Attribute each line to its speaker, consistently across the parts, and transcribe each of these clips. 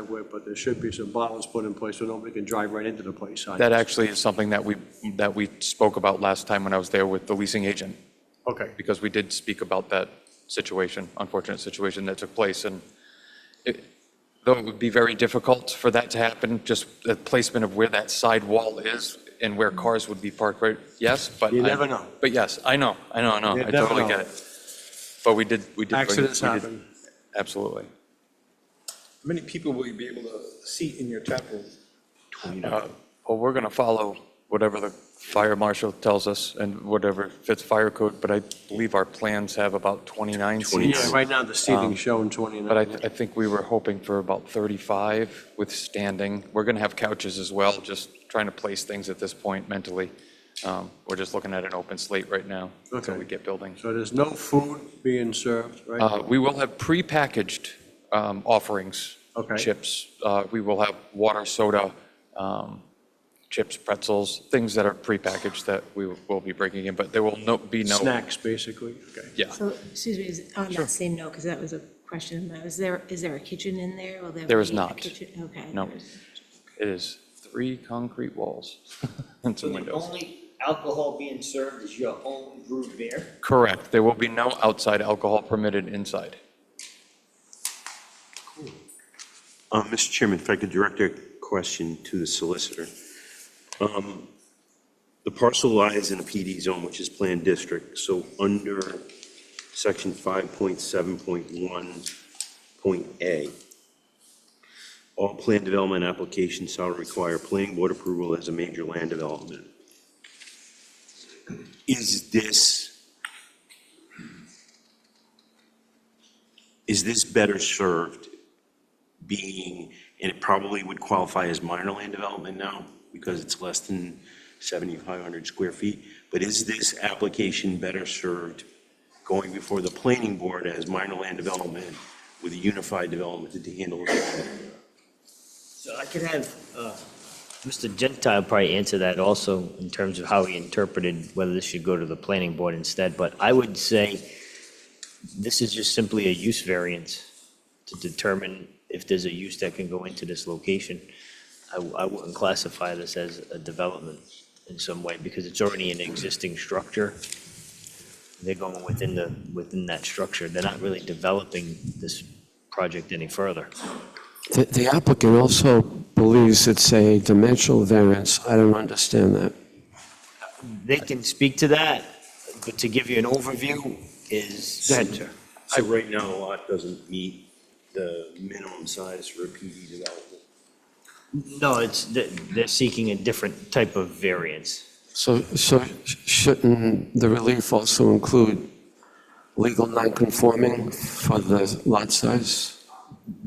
Speaker 1: driveway, but there should be some bottles put in place so nobody can drive right into the place. I-
Speaker 2: That actually is something that we, that we spoke about last time when I was there with the leasing agent,
Speaker 1: Okay,
Speaker 2: because we did speak about that situation, unfortunate situation that took place, and it- though it would be very difficult for that to happen, just the placement of where that side wall is and where cars would be parked, right? Yes, but.
Speaker 1: You
Speaker 2: I-
Speaker 1: never know.
Speaker 2: But yes, I know, I know, I know,
Speaker 1: You
Speaker 2: I
Speaker 1: never
Speaker 2: totally
Speaker 1: know.
Speaker 2: get it. But we did, we did. bring-
Speaker 1: accidents
Speaker 2: we did-
Speaker 1: happen.
Speaker 2: Absolutely.
Speaker 3: How many people will you be able to seat in your tap room?
Speaker 2: Uh, Well, we're going to follow whatever the fire marshal tells us and whatever fits fire code, but I believe our plans have about 29
Speaker 1: Yeah,
Speaker 2: seats.
Speaker 1: right now the seating's shown 29.
Speaker 2: Um, But I, I think we were hoping for about 35 with standing. We're going to have couches as well, just trying to place things at this point mentally. Um, We're just looking at an open slate right now until
Speaker 1: Okay.
Speaker 2: we get building.
Speaker 1: So there's no food being served, right?
Speaker 2: Uh, We will have prepackaged um, offerings.
Speaker 1: Okay.
Speaker 2: Chips. Uh, We will have water, soda, um, chips, pretzels, things that are prepackaged that we will be breaking in, but there will no, be no.
Speaker 1: Snacks, basically, okay.
Speaker 2: Yeah.
Speaker 4: So, excuse me, is- on that same note, because that was a question, though, is there, is there a kitchen in there? Will
Speaker 2: There
Speaker 4: be
Speaker 2: is
Speaker 4: a
Speaker 2: not.
Speaker 4: kitchen? Okay.
Speaker 2: No.
Speaker 4: there's-
Speaker 2: It is three concrete walls and
Speaker 5: So
Speaker 2: some
Speaker 5: the
Speaker 2: windows.
Speaker 5: only alcohol being served is your own brewed beer?
Speaker 2: Correct. There will be no outside alcohol permitted inside.
Speaker 6: Uh, Mr. Chairman, if I could direct a question to the solicitor. Um, The parcel lies in a PD zone, which is planned district, so under section 5.7.1.a, all planned development applications shall require planning board approval as a major land development. Is this, is this better served being, and it probably would qualify as minor land development now because it's less than 7,500 square feet. But is this application better served going before the planning board as minor land development with a unified development to handle it?
Speaker 5: So I could have uh, Mr. Gentile probably answer that also in terms of how he interpreted whether this should go to the planning board instead. But I would say this is just simply a use variance to determine if there's a use that can go into this location. I w- I wouldn't classify this as a development in some way because it's already an existing structure. They're going within the, within that structure. They're not really developing this project any further.
Speaker 7: The- The applicant also believes it's a dimensional variance. I don't understand that.
Speaker 5: They can speak to that, but to give you an overview is.
Speaker 6: Go ahead, sir. So right now, a lot doesn't meet the minimum size for a PD development.
Speaker 5: No, it's, they- they're seeking a different type of variance.
Speaker 7: So so sh- shouldn't the relief also include legal nonconforming for the lot size?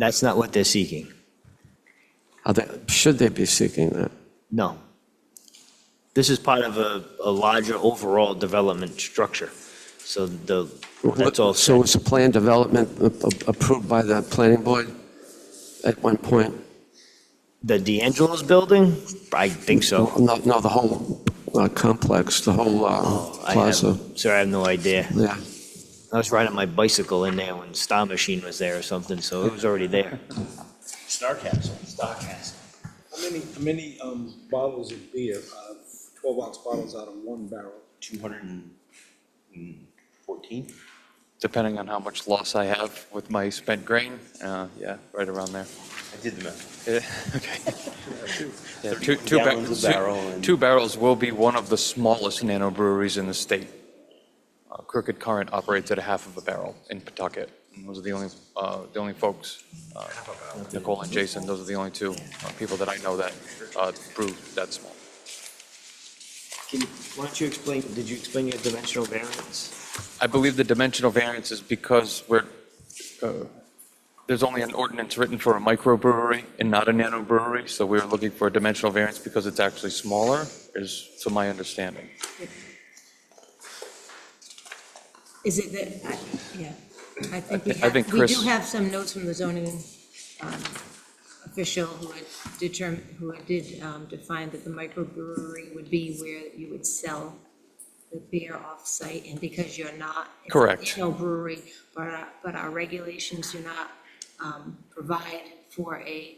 Speaker 5: That's not what they're seeking.
Speaker 7: Are they- Should they be seeking that?
Speaker 5: No. This is part of a, a larger overall development structure. So the, that's all.
Speaker 7: So was the plan development a- a- approved by the planning board at one point?
Speaker 5: The D'Angelo's building? I think so.
Speaker 7: No, no, the whole uh, complex, the whole uh,
Speaker 5: Oh, I have-
Speaker 7: plaza.
Speaker 5: Sorry, I have no idea.
Speaker 7: Yeah.
Speaker 5: I was riding my bicycle in there when Star Machine was there or something, so it was already there. Star Castle. Star Castle.
Speaker 3: How many, how many um, bottles of beer, uh, 12 ounce bottles out of one barrel?
Speaker 6: 214?
Speaker 2: Depending on how much loss I have with my spent grain, uh, yeah, right around there.
Speaker 6: I did the math.
Speaker 2: Yeah, Okay. Yeah, Two
Speaker 6: Thirty-one
Speaker 2: two ba-
Speaker 6: gallons a
Speaker 2: two-
Speaker 6: barrel and-
Speaker 2: two barrels will be one of the smallest nano breweries in the state. Uh, Crooked Current operates at a half of a barrel in Pawtucket. And Those are the only, uh, the only folks, uh, Nicole and Jason, those are the only two uh, people that I know that uh, brew that small.
Speaker 5: Can, why don't you explain, did you explain your dimensional variance?
Speaker 2: I believe the dimensional variance is because we're, uh, there's only an ordinance written for a microbrewery and not a nanobrewery, so we're looking for a dimensional variance because it's actually smaller, is to my understanding.
Speaker 4: Is it that, I- yeah, I think we
Speaker 2: I think
Speaker 4: have, we
Speaker 2: Chris-
Speaker 4: do have some notes from the zoning um, official who had determined, who had did um, define that the microbrewery would be where you would sell the beer off-site, and because you're not. it's a
Speaker 2: Correct.
Speaker 4: No brewery, but our, but our regulations do not um, provide for a